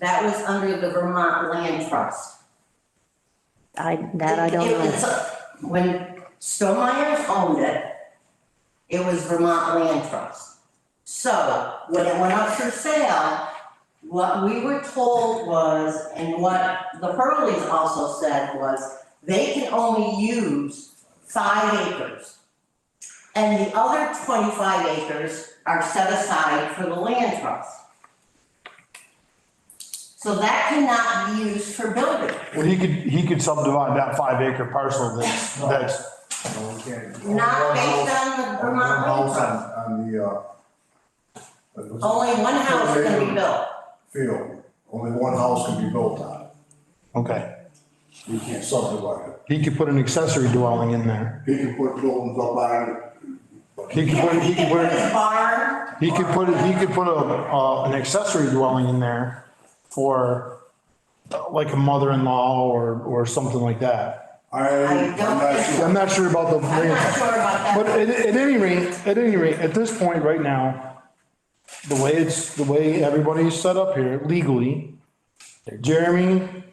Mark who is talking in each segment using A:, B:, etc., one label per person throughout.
A: That was under the Vermont Land Trust.
B: I, that I
A: It-
B: don't
A: it
B: know.
A: was, uh, When Stonemeyer owned it, it was Vermont Land Trust. So when it went up for sale, what we were told was, and what the Hurleys also said was, they can only use five acres. And the other twenty-five acres are set aside for the land trust. So that cannot be used for building.
C: Well, he could, he could subdivide that five acre parcel that's, that's,
D: No, we can't.
A: Not
D: Only one
A: based
D: house-
A: on the
D: only one
A: Vermont land
D: house
A: trust.
D: on- On the, uh. what was it?
A: Only one house can be built.
D: Field, only one house can be built on it,
C: okay.
D: we can't subdivide it.
C: He could put an accessory dwelling in there.
D: He can put buildings up on it,
C: He could put, he could
A: his
C: put,
A: barn,
C: he could put, he could put a, uh, an accessory dwelling in there for uh, like a mother-in-law or, or something like that.
D: I,
A: I
D: I'm
A: don't
D: not
A: think-
D: sure.
C: I'm not sure about the.
A: I'm not sure about
C: But
A: that.
C: at, at any rate, at any rate, at this point right now, the way it's, the way everybody's set up here legally, Jeremy,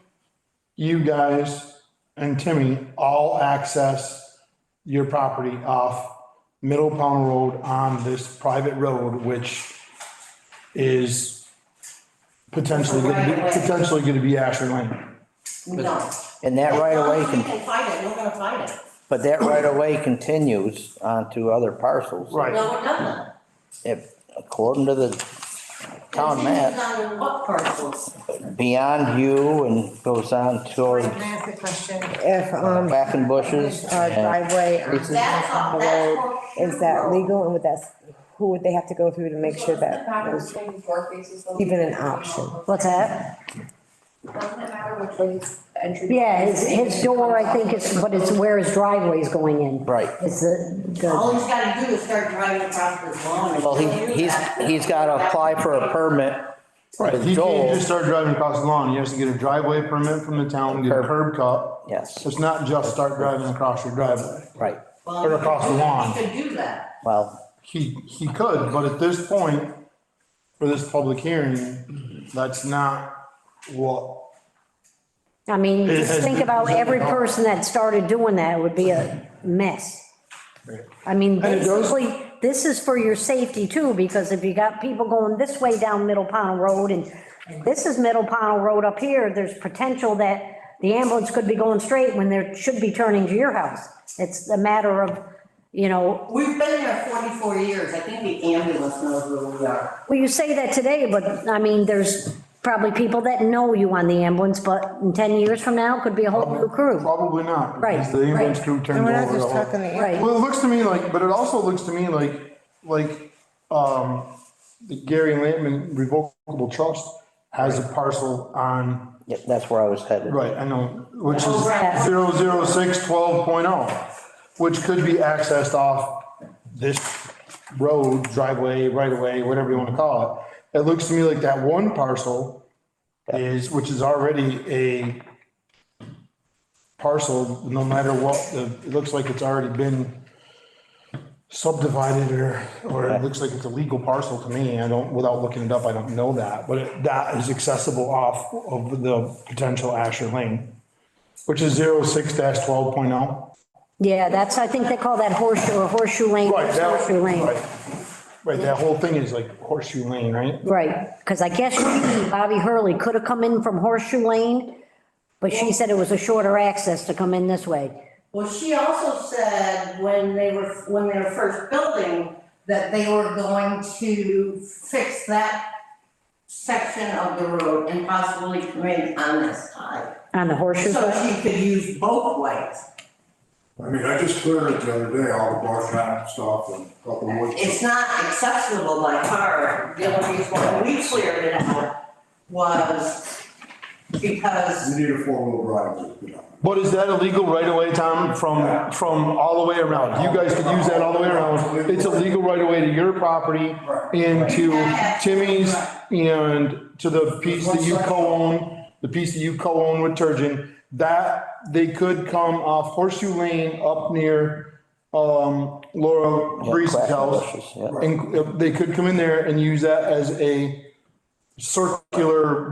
C: you guys and Timmy all access your property off Middle Pound Road on this private road, which is potentially, gonna be- potentially gonna be Asher Lane.
A: No.
E: And that right
A: As long
E: away
A: as we
E: can,
A: can fight it, we're gonna fight it.
E: but that right away continues onto other parcels.
C: Right,
A: No, it doesn't.
E: If, according to the town
A: It
E: map,
A: depends on what parcels.
E: beyond you and goes on towards
F: Can I ask a question? If, um,
E: back and bushes.
F: uh,
E: and-
F: driveway on
E: It's-
A: That's all,
F: the
A: that's.
F: road,
A: all-
F: is that legal and would that, who would they have to go through to make sure that was even an option?
B: What's that?
G: Doesn't it matter which way his entry?
B: Yeah, his, his door, I think it's, but it's where his driveway is going in.
E: Right.
B: It's the, the,
A: All he's gotta do is start driving across this lawn.
E: Well, he, he's, he's got to apply for a permit.
C: right.
E: with
C: He can't
E: Joel.
C: just start driving across the lawn. He has to get a driveway permit from the town, get a curb cut.
E: Yes,
C: It's not just start driving across your driveway.
E: right.
C: or across the lawn.
A: He could do that.
E: Well,
C: He, he could, but at this point, for this public hearing, that's not what,
B: I mean,
C: It
B: just
C: has
B: think
C: been-
B: about every person that started doing that would be a mess. I mean,
C: And it goes-
B: basically, this is for your safety too, because if you got people going this way down Middle Pownell Road and this is Middle Pownell Road up here, there's potential that the ambulance could be going straight when they should be turning to your house. It's a matter of, you know,
A: We've been there forty-four years. I think the ambulance knows where we are.
B: Well, you say that today, but I mean, there's probably people that know you on the ambulance, but in 10 years from now, it could be a whole new crew.
C: probably not.
B: Right,
C: because The ambulance
B: right.
C: crew
F: And
C: turned
F: we're not
C: over. the
F: just
C: whole-
F: talking the.
B: Right.
C: Well, it looks to me like, but it also looks to me like, like, um, the Gary Lampman revocable trust has a parcel on,
E: yeah, that's where I was headed.
C: right, I know, which is
A: Over at-
C: zero zero six twelve point oh, which could be accessed off this road, driveway, right away, whatever you want to call it. It looks to me like that one parcel is, which is already a parcel, no matter what, the- it looks like it's already been subdivided or, or it looks like it's a legal parcel to me. I don't, without looking it up, I don't know that, but it- that is accessible off of the potential Asher Lane. Which is zero six dash twelve point oh.
B: Yeah, that's, I think they call that horseshoe, or horseshoe lane,
C: Right, that-
B: horseshoe lane.
C: right. Right, that whole thing is like horseshoe lane, right?
B: Right, because I guess Bobby Hurley could have come in from horseshoe lane, but she said it was a shorter access to come in this way.
A: Well, she also said when they were, when they were first building, that they were going to fix that section of the road and possibly come in on this side.
B: On the horseshoe,
A: So she could use both ways.
D: I mean, I just cleared it the other day, all the brush and stuff and a couple of woods.
A: It's not accessible by car. The only reason why we cleared it out was because
D: You need a four-wheel drive to get up.
C: But is that illegal right away, Tom, from, from all the way around? You guys could use that all the way around. It's illegal right away to your property and to Timmy's and to the piece that you co-own, the piece that you co-own with Turgeon. That, they could come off horseshoe lane up near, um, Laura
E: Yeah,
C: Breeze's
E: crack and
C: house. uh,
E: bushes, yeah.
C: And they could come in there and use that as a circular